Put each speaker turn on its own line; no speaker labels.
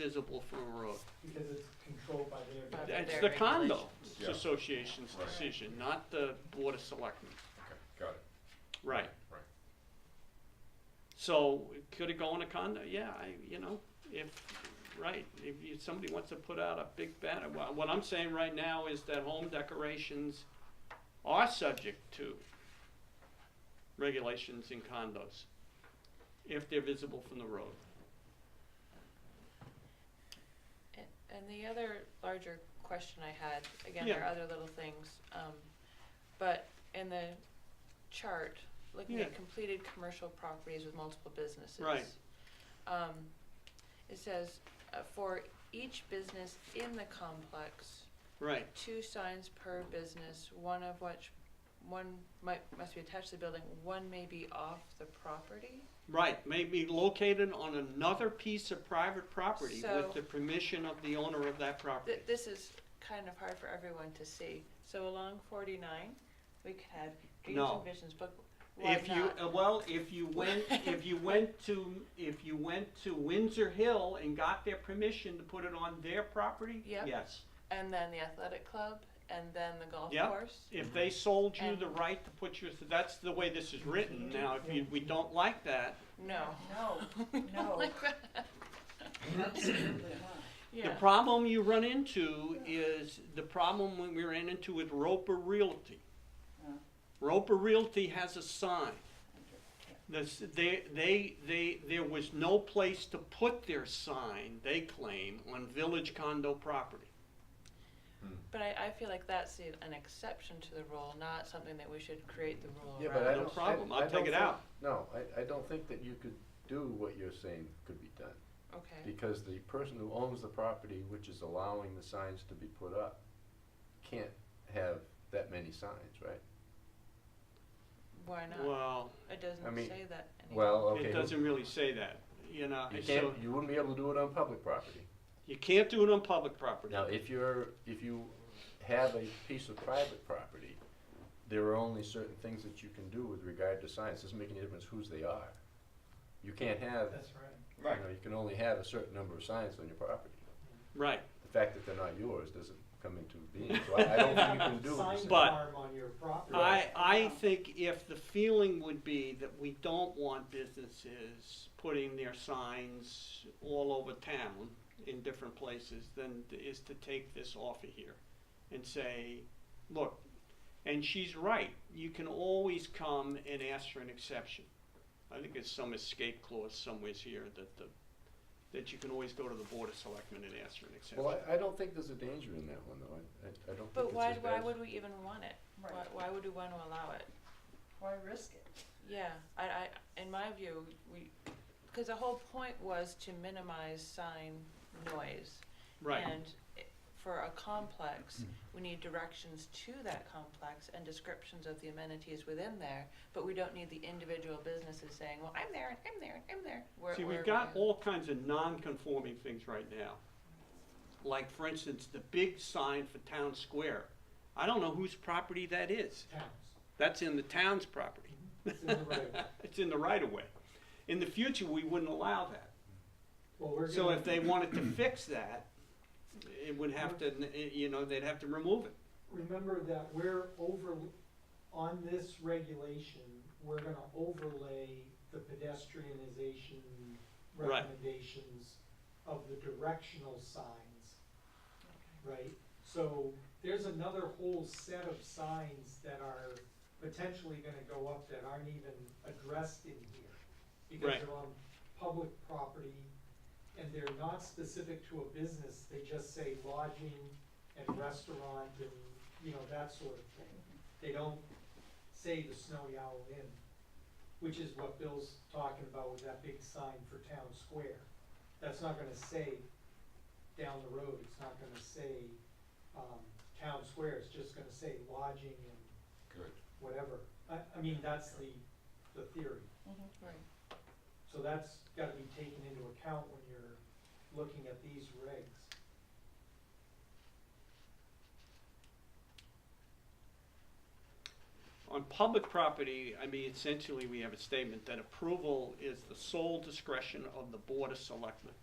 visible from a road.
because it's controlled by their.
By
definition.
That's
their
the condo
Yeah.
association's
Right.
decision, not the board of selectmen.
Okay, got it.
Right.
Right.
So, could it go in a condo? Yeah, I, you know, if, right, if you, somebody wants to put out a big banner, well, what I'm saying right now is that home decorations are subject to regulations in condos, if they're visible from the road.
And- And the other larger question I had, again, there are other little things, um, but in the chart, looking
Yeah.
at completed commercial properties with multiple businesses.
Right.
Um, it says, uh, for each business in the complex,
Right,
two signs per business, one of which, one might, must be attached to the building, one may be off the property?
right, may be located on another piece of private property
So-
with the permission of the owner of that property.
Th- This is kind of hard for everyone to see. So along forty-nine, we could have dreams
No.
and visions, but why
If you,
not?
uh, well, if you went, if you went to, if you went to Windsor Hill and got their permission to put it on their property,
Yep.
yes.
And then the athletic club, and then the golf
Yeah.
course.
If they sold you the
And-
right to put your, that's the way this is written now, if you, we don't like that.
No.
No, no,
Like that.
absolutely not.
The
Yeah.
problem you run into is the problem when we ran into with Roper Realty.
Uh.
Yeah.
Roper Realty has a sign. This, they, they, they, there was no place to put their sign, they claim, on village condo property.
But I, I feel like that's the- an exception to the rule, not something that we should create the rule around.
Yeah, but I
No
don't. I-
problem. I'll
I
take
don't
it
think-
out.
No, I, I don't think that you could do what you're saying could be done,
Okay,
because the person who owns the property, which is allowing the signs to be put up, can't have that many signs, right?
why not?
Well,
It
I
doesn't
mean,
say that anywhere.
Well, okay.
it
who-
doesn't really say that, you know,
You
so,
can't, you wouldn't be able to do it on public property.
you can't do it on public property.
Now, if you're, if you have a piece of private property, there are only certain things that you can do with regard to signs, doesn't make any difference whose they are. You can't have,
That's right.
you know, you can only have a certain number of signs on your property.
Right,
The fact that they're not yours doesn't come into being, so I I don't think you can do what you're
Sign
saying.
But-
farm on your property.
I, I think if the feeling would be that we don't want businesses putting their signs all over town in different places, then is to take this off of here and say, look, and she's right, you can always come and ask for an exception. I think there's some escape clause somewheres here that the, that you can always go to the board of selectmen and ask for an exception.
Well, I, I don't think there's a danger in that one, though, I, I- I don't think
But
it's
why,
as
why
bad.
would we even want it? Why,
Right.
why would we want to allow it?
Why risk it?
Yeah, I, I, in my view, we, because the whole point was to minimize sign noise.
Right. Mm-hmm.
And i- for a complex, we need directions to that complex and descriptions of the amenities within there, but we don't need the individual businesses saying, well, I'm there, and I'm there, and I'm there. Where-
See,
where
we've
are
got
we at?
all kinds of non-conforming things right now. Like, for instance, the big sign for Town Square. I don't know whose property that is.
Towns.
That's in the town's property.
It's in the right of way.
It's in the right of way. In the future, we wouldn't allow that.
Well, we're
So
gonna-
if they wanted to fix that, it would have to, eh, you know, they'd have to remove it.
remember that we're over, on this regulation, we're gonna overlay the pedestrianization
Right.
recommendations of the directional signs, right? So there's another whole set of signs that are potentially gonna go up that aren't even addressed in here. Because
Right.
they're on public property and they're not specific to a business, they just say lodging and restaurant and, you know, that sort of thing. They don't say the Snowy Owl Inn, which is what Bill's talking about with that big sign for Town Square. That's not gonna say down the road, it's not gonna say, um, Town Square, it's just gonna say lodging and
Good.
whatever. I, I mean, that's the, the theory.
Mm-hmm.
Right.
So that's gotta be taken into account when you're looking at these regs.
On public property, I mean, essentially, we have a statement that approval is the sole discretion of the Board of Selectmen.